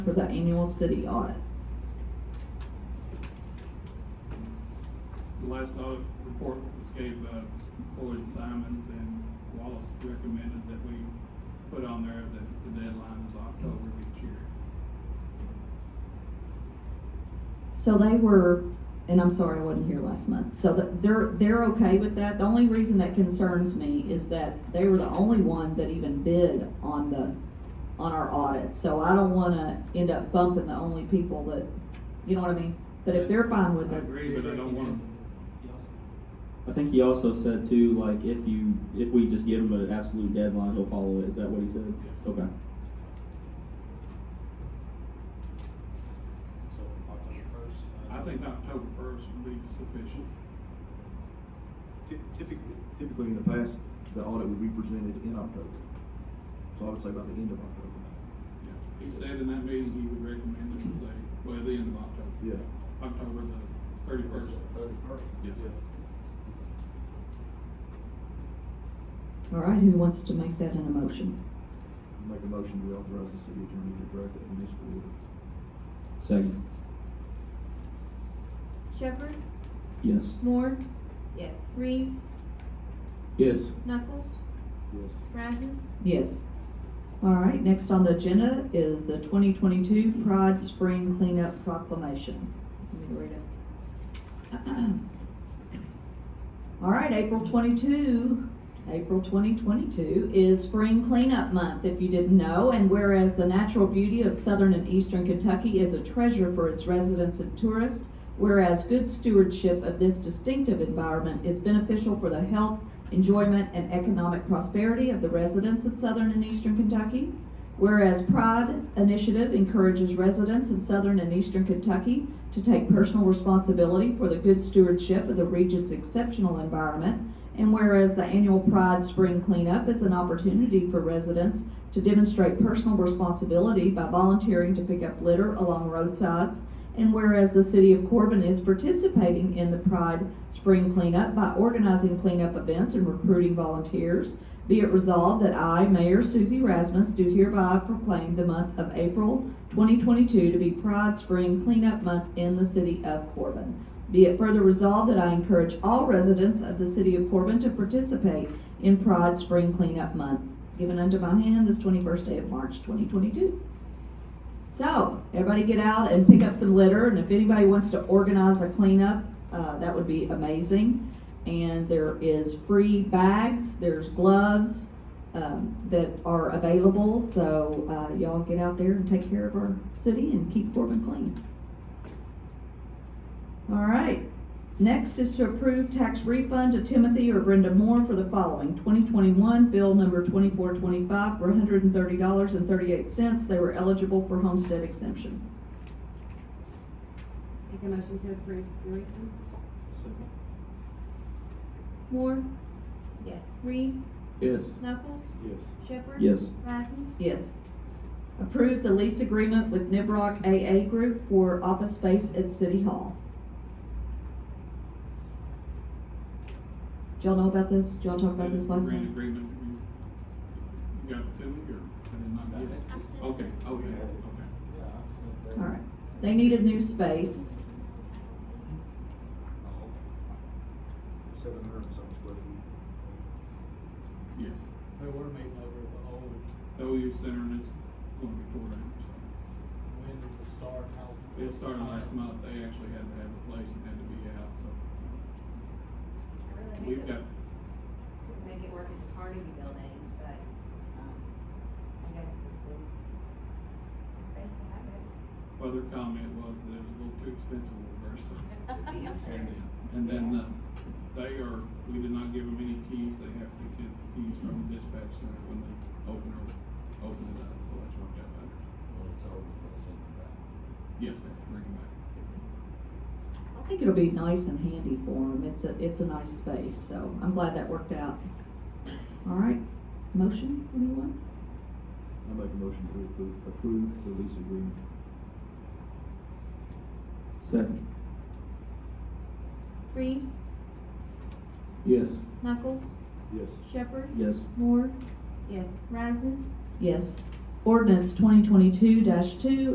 for the annual city audit. The last audit report was gave, uh, Floyd Simons and Wallace recommended that we put on there that the deadline is October of each year. So they were, and I'm sorry I wasn't here last month, so that, they're, they're okay with that. The only reason that concerns me is that they were the only one that even bid on the, on our audit. So I don't wanna end up bumping the only people that, you know what I mean? But if they're fine with I it, agree, but I don't want, I think he also said too, like if you if we just give him an absolute deadline, he'll follow it. Is that what he said? Yes. Okay. So October first. I think October first would be sufficient. Ty- Typically, typically in the past, the audit would be presented in October. So I would say by the end of October. Yeah. He said in that meeting, he would recommend it, say, by the end of October. Yeah. October the thirty-first. Thirty first. Yes. all right, who wants to make that in a motion? Make a motion to authorize the city attorney to direct that municipal order. Second. Shepherd, Yes. Moore. Yes. Reeves, Yes. Knuckles, Yes. Rasmus, Yes. All right, next on the agenda is the twenty twenty-two Pride Spring Cleanup Proclamation. Let me read it. All right, April twenty-two, April twenty twenty-two is Spring Cleanup Month, if you didn't know. And whereas the natural beauty of southern and eastern Kentucky is a treasure for its residents and tourists, whereas good stewardship of this distinctive environment is beneficial for the health, enjoyment, and economic prosperity of the residents of southern and eastern Kentucky. Whereas Pride Initiative encourages residents of southern and eastern Kentucky to take personal responsibility for the good stewardship of the region's exceptional environment. And whereas the annual Pride Spring Cleanup is an opportunity for residents to demonstrate personal responsibility by volunteering to pick up litter along roadsides. And whereas the city of Corbin is participating in the Pride Spring Cleanup by organizing cleanup events and recruiting volunteers. Be it resolved that I, Mayor Susie Rasmus, do hereby proclaim the month of April 2022 to be Pride Spring Cleanup Month in the city of Corbin. Be it further resolved that I encourage all residents of the city of Corbin to participate in Pride Spring Cleanup Month, given unto my hand this 21st day of March 2022. So, everybody get out and pick up some litter, and if anybody wants to organize a cleanup, uh, that would be amazing. And there is free bags, there's gloves um, that are available, so uh, y'all get out there and take care of our city and keep Corbin clean. All right, next is to approve tax refund to Timothy or Brenda Moore for the following. 2021 bill number 2425 for $130.38. They were eligible for homestead exemption. Make a motion to approve the refund? Second. Moore, Yes. Reeves, Yes. Knuckles, Yes. Shepherd. Yes. Rasmus, Yes. Approve the lease agreement with Nibrock AA Group for office space at City Hall. Did y'all know about this? Did y'all talk about this last Grant night? agreement, you, you got it to me, or I did not get it? I sent it. Okay, okay, okay. Yeah, I said that. All right. They needed new space. Seven hundred and something square feet. Yes. They were meeting over the old, The OU Center and it's going to be tore down, so. when did it start, how? It started last month, they actually had to have a place and had to be out, so we've got, Couldn't Make it work as a Carnegie building, but, um, I guess this is the space to have it. well, their comment was that it was a little too expensive over there, so. Yeah, I'm And sure. then- And then, uh, they are, we did not give them any keys, they have to get the keys from the dispatch center when they open it, open it up, so that's what got done. Well, it's over, but it's in the back. Yes, they have to bring it back. I think it'll be nice and handy for them. It's a, it's a nice space, so I'm glad that worked out. All right, motion, anyone? I make a motion to approve, approve the lease agreement. Second. Reeves, Yes. Knuckles, Yes. Shepherd, Yes. Moore, Yes. Rasmus, Yes. Ordinance twenty twenty-two two